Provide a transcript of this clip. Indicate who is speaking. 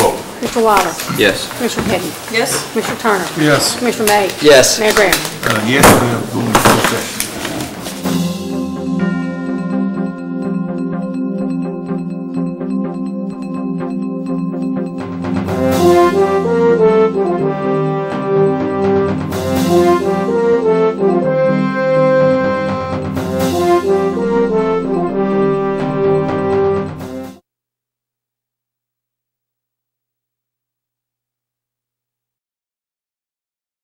Speaker 1: Mr. Wallace?
Speaker 2: Yes.
Speaker 1: Commissioner Petty?
Speaker 3: Yes?
Speaker 1: Commissioner Turner?
Speaker 4: Yes.
Speaker 1: Commissioner May?
Speaker 2: Yes.
Speaker 1: Mayor Brown?
Speaker 4: Uh, yes, we have going to closed session.